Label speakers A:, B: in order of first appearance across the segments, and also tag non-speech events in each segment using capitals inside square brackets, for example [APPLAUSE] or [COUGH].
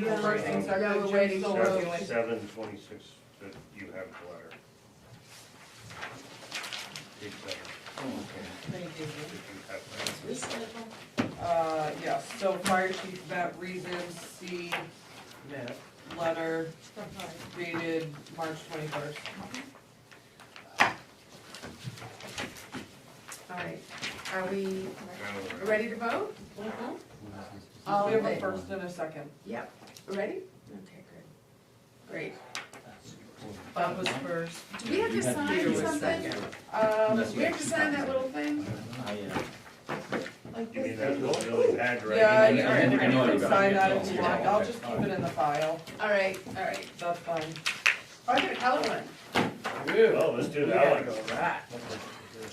A: The first things are
B: Yeah,
A: good,
B: we're
A: Jay
B: waiting for
A: Solo.
B: those.
C: Seven twenty-six, that you have the letter. Page seven,
D: Oh,
A: Thank you.
C: that you have the letter.
E: This level,
A: Uh, yes, so fire chief Matt Reason, C, letter dated March twenty-first.
B: All right, are we
C: Now, uh,
B: ready to vote? All
A: We
B: in
A: have a
B: favor?
A: first and a second.
B: Yep, ready? Okay, good. Great.
A: That was first.
B: Do we have to
A: Peter
B: sign
A: was
B: something?
A: second.
B: Um, we have to Oh, sign that little thing? Like
C: You mean
B: this?
C: that's what Billy had, right?
A: Yeah,
D: you
A: you
D: can-
A: can,
D: you can
A: you can sign that if you
D: Yeah.
A: want, I'll just keep it in the file,
B: All right, all right.
A: that's fine.
B: Oh, I got a color one.
C: Oh, let's do that one.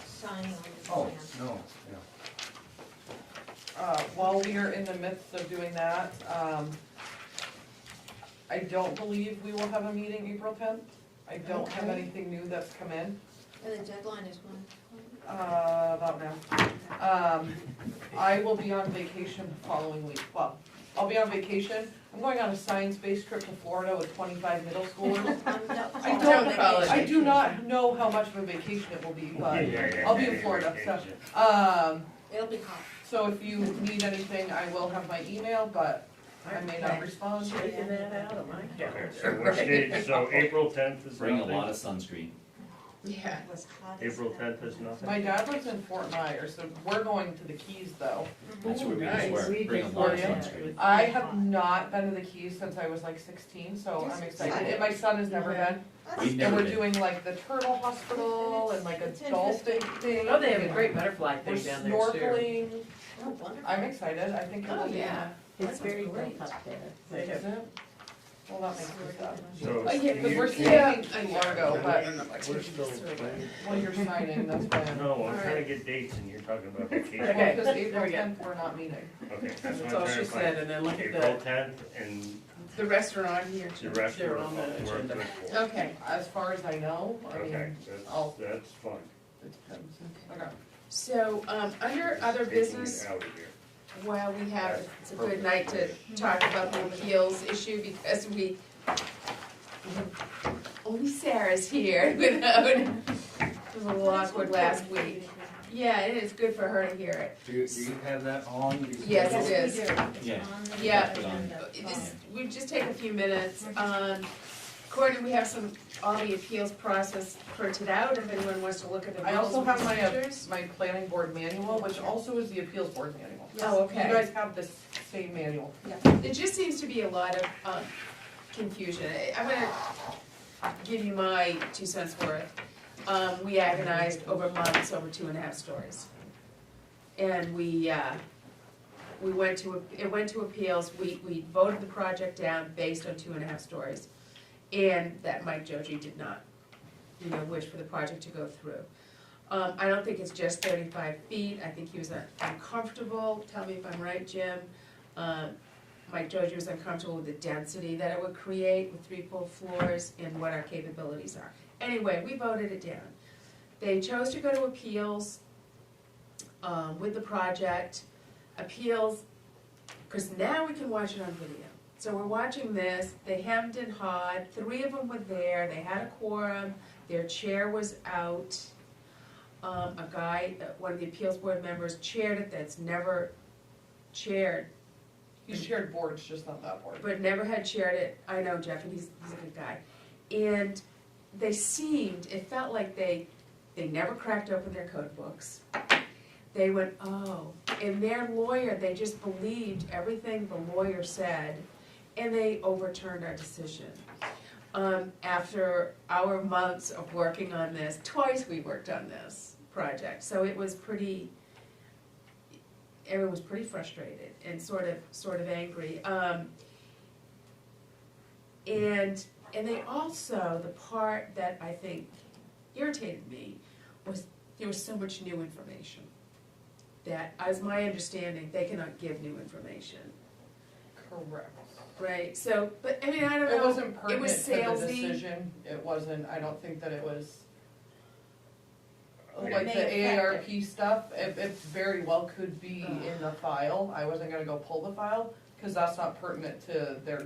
E: sign
D: Oh,
E: on the plan.
D: no,
A: Uh, while we are in the midst of doing that, um, I don't believe we will have a meeting April tenth. I don't have
E: Okay.
A: anything new that's come in,
E: And the deadline is
B: [LAUGHS]
E: when?
A: uh, about now. Um, I will be on vacation the following week, well, I'll be on vacation, I'm going on a science-based trip to Florida with twenty-five middle schoolers.
E: I
A: I
B: don't call it.
A: I do not know how much of a vacation it will be,
C: Yeah,
A: but,
C: yeah, yeah,
A: I'll be
C: yeah,
A: in
C: yeah,
A: Florida,
C: yeah,
A: so-
C: yeah.
A: um,
E: It'll be hot.
A: so if you need anything, I will have my email, but I may not respond.
B: Taking that out of my
C: Okay, so which date, so April tenth is
F: Bring a lot
C: nothing?
F: of sunscreen.
B: Yeah.
E: It was hot. as
C: April
E: hell.
C: tenth is
A: My
C: nothing?
A: dad lives in Fort Myers, so we're going to the Keys though.
F: That's what we
B: nice.
F: just wear. Bring a
A: just
F: lot of
A: wear it.
F: sunscreen.
A: I have not been to the Keys since I was like sixteen, so
E: You're
A: I'm
E: 16.
A: excited, and my son has never
B: Yeah.
A: been.
E: That's-
F: We've
A: And
F: never
A: we're
F: been.
A: doing like the turtle hospital and like a
E: It's
A: dolphin thing.
G: Oh, they have a
A: and
G: great butterfly
A: We're
G: thing down there too.
A: snorkeling,
E: Oh, wonderful.
A: I'm excited, I think it'll
B: Oh,
A: be.
B: yeah.
E: It's very
G: great.
E: up there.
G: They have-
A: Is it? Well, that makes me sad.
C: So.
B: Oh, yeah,
A: Because we're
C: you-
A: signing to Largo, but
C: We're still planning.
A: when you're signing, that's when.
C: No, I'm trying to get dates and you're talking about vacation.
G: Okay,
A: Because April
G: there we go.
A: tenth, we're not meeting.
C: Okay, that's what
G: That's
C: I'm
G: all
C: trying
G: she
C: to
G: said,
C: find.
G: and then look at
C: April
G: the,
C: tenth and
B: The restaurant here.
C: the rest
G: They're
C: are
G: on the
C: we're
G: agenda.
C: good for.
B: Okay.
A: As far as I know, I
C: Okay,
A: mean,
C: that's,
B: Oh.
A: I'll-
C: that's fine.
A: it depends. Okay.
B: So, um, under other
C: Taking it
B: business,
C: out of here.
B: while we have, it's a good night to talk about the appeals issue because we, only Sarah's here [LAUGHS] without, it was a little awkward last week. Yeah, it is good for her to hear it.
D: Do you, do you have that on? You-
B: Yes, it
E: Yes,
B: is.
E: we do. It's
F: Yeah.
E: on the
B: Yeah.
E: agenda.
B: Just, we just take a few minutes. Um, Courtney, we have some, all the appeals process printed out, if anyone wants to look at the
A: I
B: rules
A: also
B: and
A: have my, uh,
B: procedures.
A: my planning board manual, which also is the appeals board manual.
B: Oh,
A: You
B: okay.
A: guys have this same manual.
B: There just seems to be a lot of um, confusion. I- I'm gonna give you my two cents worth. Um, We agonized over months over two and a half stories. And we, uh, we went to, it went to appeals, we, we voted the project down based on two and a half stories. And that Mike Joji did not, you know, wish for the project to go through. Um, I don't think it's just thirty-five feet, I think he was uncomfortable, tell me if I'm right, Jim. Um, Mike Dozier was uncomfortable with the density that it would create with three full floors and what our capabilities are. Anyway, we voted it down. They chose to go to appeals um, with the project, appeals, because now we can watch it on video. So we're watching this, they hemmed and hawed, three of them were there, they had a quorum, their chair was out. Um, A guy, uh, one of the appeals board members chaired it, that's never chaired
A: You shared boards, just not that board.
B: but never had shared it. I know Jeff, and he's, he's a good guy. And they seemed, it felt like they, they never cracked open their code books. They went, oh, and their lawyer, they just believed everything the lawyer said, and they overturned our decision. Um, after our months of working on this, twice we worked on this project, so it was pretty, everyone was pretty frustrated and sort of, sort of angry. Um, and, and they also, the part that I think irritated me was there was so much new information. That, as my understanding, they cannot give new information,
A: Correct.
B: right? So, but, I mean, I don't know.
A: It wasn't
B: It
A: pertinent
B: was
A: to the
B: salesy.
A: decision, it wasn't, I don't think that it was.
C: Okay.
A: Like the
E: May affect
A: AARP stuff, it, it very well could be in the file, I wasn't gonna go pull the file, cause that's not pertinent to their